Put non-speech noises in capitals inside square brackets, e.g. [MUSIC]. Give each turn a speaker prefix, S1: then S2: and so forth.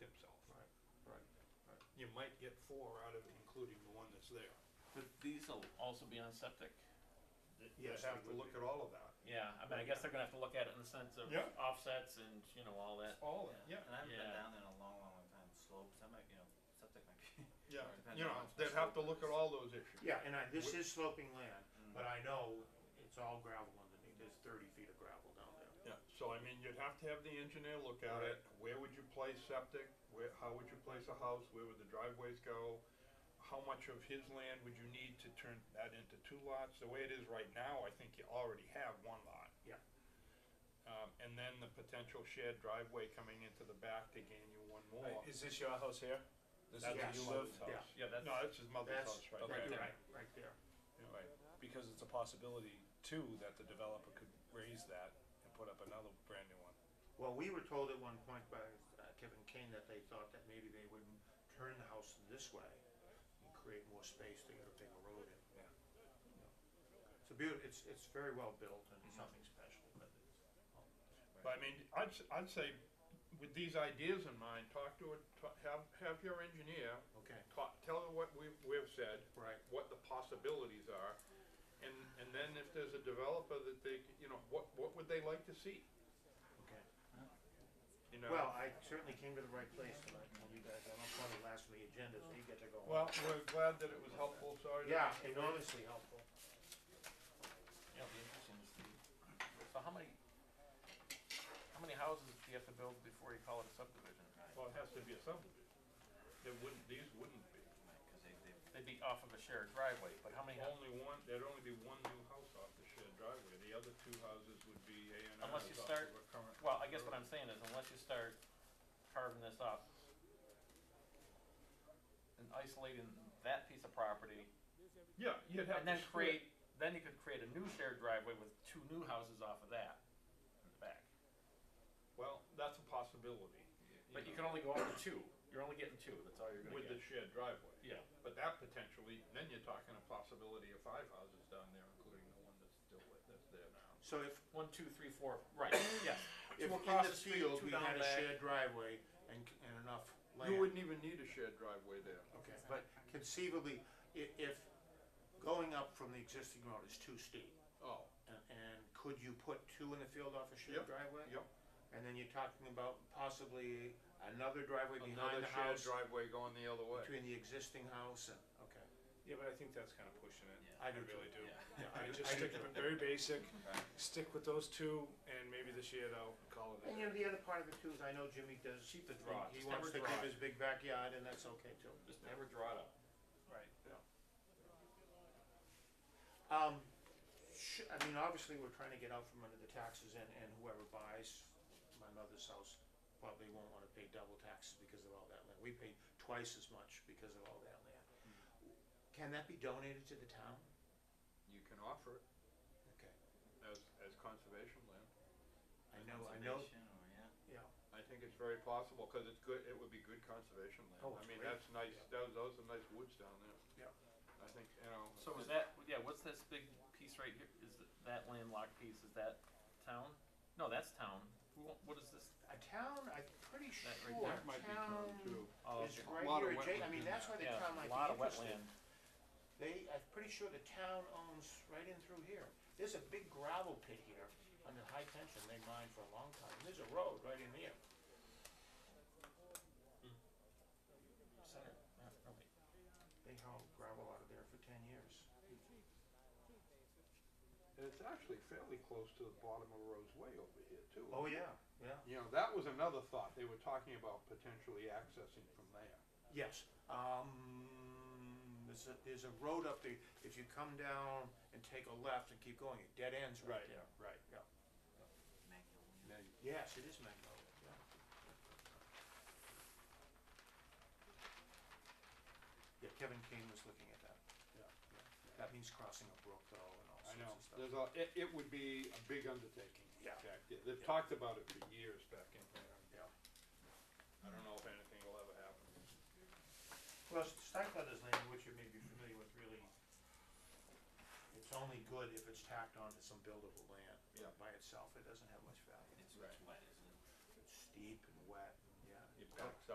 S1: you might get four out of it, including the one that's there.
S2: But these will also be on septic.
S3: Th-
S1: You
S3: yes,
S1: have
S3: it
S1: to
S3: would
S1: look
S3: be.
S1: at all of that.
S2: Yeah, I mean, I guess they're gonna have to look at it in the sense of
S1: Yeah.
S2: offsets and, you know, all that.
S1: All of it, yeah,
S4: And I haven't
S2: Yeah.
S4: been down there in a long, long, long time. Slopes, I might, you know, septic might be.
S1: yeah,
S4: Depends
S1: you
S4: on
S1: know,
S4: how much
S1: they'd have to look at
S4: slope it
S1: all those issues.
S3: Yeah, and I, this
S1: Wh-
S3: is sloping land,
S4: Mm.
S3: but I know it's all gravel underneath, there's thirty feet of gravel down there.
S1: Yeah, so I mean, you'd have to have the engineer look at it, where would you place septic, where, how would you place a house, where would the driveways go? How much of his land would you need to turn that into two lots? The way it is right now, I think you already have one lot.
S3: Yeah.
S1: Um, and then the potential shared driveway coming into the back to gain you one more.
S5: Wait, Is this your house here? This is
S1: That's
S5: where
S3: yes.
S5: you
S1: his
S5: live?
S1: mother's house.
S2: Yeah, that's,
S1: No, that's his mother's
S3: That's
S1: house, right?
S5: okay.
S1: there.
S3: Right,
S5: Yeah.
S3: right, right there.
S5: Right, because it's a possibility too that the developer could raise that and put up another brand new one.
S3: Well, we were told at one point by uh, Kevin Kane that they thought that maybe they would turn the house this way and create more space to get a bigger road in.
S5: Yeah.
S3: It's a beaut, it's, it's very well built and it's nothing special, but it's.
S1: But I mean, I'd, s- I'd say, with these ideas in mind, talk to, a- ta- have, have your engineer
S3: Okay,
S1: ta- tell her what we, we've said,
S3: right,
S1: what the possibilities are, and, and then if there's a developer that they, c- you know, what, what would they like to see,
S3: okay.
S1: you know?
S3: Well, I certainly came to the right place tonight, and you guys, I'm on the last of the agenda, so you get to go home.
S1: Well, we're glad that it was helpful, sorry. to-
S3: Yeah, enormously helpful.
S2: yeah, it'll be interesting to see. So how many, how many houses do you have to build before you call it a subdivision?
S1: Well, it has to be a subdivision, it wouldn't, these wouldn't be,
S4: Cause they, they,
S2: They'd be off of a shared driveway, but how many, hou-
S1: only one, there'd only be one new house off the shared driveway, the other two houses would be A and
S2: Unless
S1: Rs
S2: you
S1: off
S2: start-
S1: of a current
S2: well, I guess what I'm saying is unless you start carving this up and isolating that piece of property,
S1: Yeah, you'd have
S2: and
S1: to
S2: then
S1: split.
S2: create, then you could create a new shared driveway with two new houses off of that in the back.
S1: Well, that's a possibility.
S2: But you can only go up to two. You're only getting two. That's all you're gonna
S1: With the
S2: get.
S1: shared driveway.
S2: yeah.
S1: But that potentially, then you're talking a possibility of five houses down there, including the one that's still, with- that's there now.
S3: So if,
S2: One, two, three, four. [COUGHS] Right. yes.
S3: if
S2: Two
S3: in
S2: across
S3: the
S2: the street,
S3: field,
S2: two
S3: we
S2: down
S3: had a
S2: back.
S3: shared driveway and, c- and enough land.
S1: You wouldn't even need a shared driveway there.
S3: Okay, but conceivably, i- if going up from the existing road is too steep,
S1: Oh,
S3: and, and could you put two in the field off a shared
S1: Yep,
S3: driveway?
S1: yep.
S3: And then you're talking about possibly another driveway
S1: another
S3: behind the
S1: shared
S3: house,
S1: driveway going the other way.
S3: between the existing house and, okay.
S5: Yeah, but I think that's kind of pushing it.
S4: yeah.
S3: I
S5: I
S3: do too.
S5: really do.
S4: Yeah.
S3: Yeah,
S5: I
S3: do- I
S5: just
S3: do
S5: stick
S3: too.
S5: with it very basic,
S4: Right.
S5: stick with those two and maybe this year they'll call it.
S3: And you know, the other part of it too is I know Jimmy does.
S2: Keep the draw.
S3: He
S2: Just
S3: wants
S2: never
S3: to
S2: draw
S3: keep
S2: it.
S3: his big backyard and that's okay too.
S2: Just never draw it up.
S5: Right.
S3: Um, sh- I mean, obviously, we're trying to get out from under the taxes and, and whoever buys my mother's house probably won't wanna pay double taxes because of all that land. We pay twice as much because of all that land.
S1: Hmm.
S3: Can that be donated to the town?
S1: You can offer it
S3: Okay,
S1: as, as conservation land.
S3: I
S4: [LAUGHS]
S3: know, I know,
S4: Conservation or, yeah.
S3: yeah,
S1: I think it's very possible, cause it's good, it would be good conservation land.
S3: Oh,
S1: I
S3: it's
S1: mean,
S3: great.
S1: that's nice, those, those are nice woods down there.
S3: Yeah.
S1: I think, you know.
S2: So is that? Yeah. What's this big piece right here? Is th- that landlocked piece? Is that town? No, that's town. Who, own- what is this?
S3: a town, I'm pretty sure, town
S2: That right there
S1: That might be town too.
S2: Oh,
S3: is
S2: okay.
S3: right
S1: Lot of
S3: here adjacent, I
S1: wetland in
S3: mean, that's why the
S2: yeah.
S3: town
S2: a
S3: might be
S2: lot of
S3: interested.
S2: wetland.
S3: They, I'm pretty sure the town owns right in through here. There's a big gravel pit here under high tension they mined for a long time. And There's a road right in there.
S2: Center. Yeah, no, wait.
S3: They hauled gravel out of there for ten years.
S1: And it's actually fairly close to the bottom of Rose Way over here too.
S3: Oh, yeah, yeah.
S1: You know, that was another thought. They were talking about potentially accessing from there.
S3: Yes, um, there's a, there's a road up there. If you come down and take a left and keep going, it dead ends right there.
S1: right.
S4: Magnolia.
S1: Now you-
S3: Yes, it is Magnolia, yeah. Yeah, Kevin Kane was looking at that.
S1: Yeah.
S3: That means crossing a brook though and all
S1: I know.
S3: sorts of stuff.
S1: There's a, it, it would be a big undertaking. in
S3: Yeah.
S1: fact. They- They've
S3: Yeah.
S1: talked about it for years back in there.
S3: Yeah.
S1: I don't know if anything will ever happen.
S3: Well, Stackletter's land, which you may be familiar with, really, it's only good if it's tacked onto some buildable land.
S1: Yeah.
S3: By itself, it doesn't have much value.
S4: It's,
S1: Right.
S4: it's wet, isn't it?
S3: It's steep and wet, and yeah.
S1: It backs